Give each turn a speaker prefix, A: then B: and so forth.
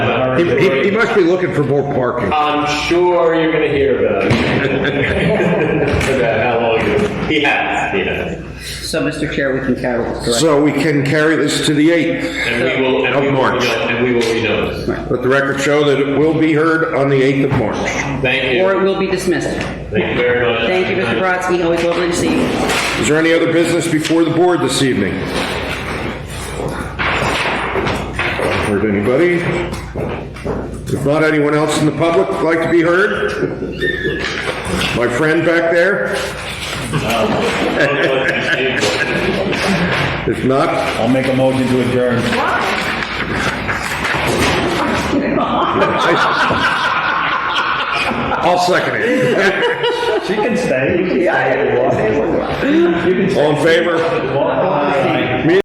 A: He, he- he must be looking for more parking.
B: I'm sure you're going to hear about it. about how long you, he has, he has.
C: So, Mr. Chair, we can carry this, correct?
A: So we can carry this to the 8th.
B: And we will, and
A: Of
B: we will,
A: March.
B: reno- and we will renotice.
A: Let the record show that it will be heard on the 8th of March.
B: Thank
C: Or it
B: you.
C: will be dismissed.
B: Thank you very much.
C: Thank you, Mr. Brodsky, always lovely to see you.
A: Is there any other business before the board this evening? Heard anybody? If not, anyone else in the public would like to be heard? My friend back there? If not,
D: I'll make a motion to adjourn.
A: I'll second it.
D: She can stay. Yeah.
A: All in favor?